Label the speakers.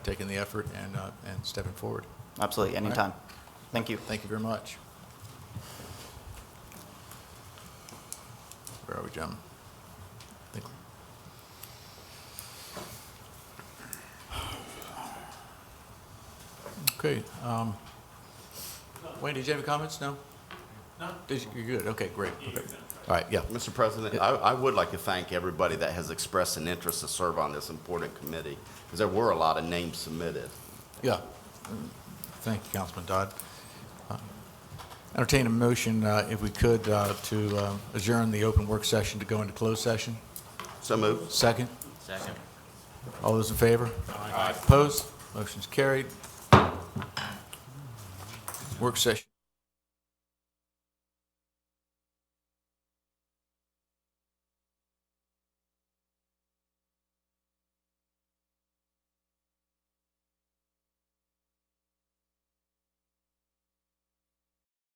Speaker 1: taking the effort and, uh, and stepping forward.
Speaker 2: Absolutely, anytime. Thank you.
Speaker 1: Thank you very much. Where are we, gentlemen? I think- Okay. um, Wayne, did you have any comments? No? No. You're good, okay, great. Okay. All right, yeah.
Speaker 3: Mr. President, I, I would like to thank everybody that has expressed an interest to serve on this important committee, because there were a lot of names submitted.
Speaker 1: Yeah. Thank you, Councilman Dodd. Uh, Entertain a motion, uh, if we could, uh, to uh, adjourn the open work session to go into closed session.
Speaker 3: So moved.
Speaker 1: Second? Second. All those in favor? Aye. Opposed? Motion's carried. Work session.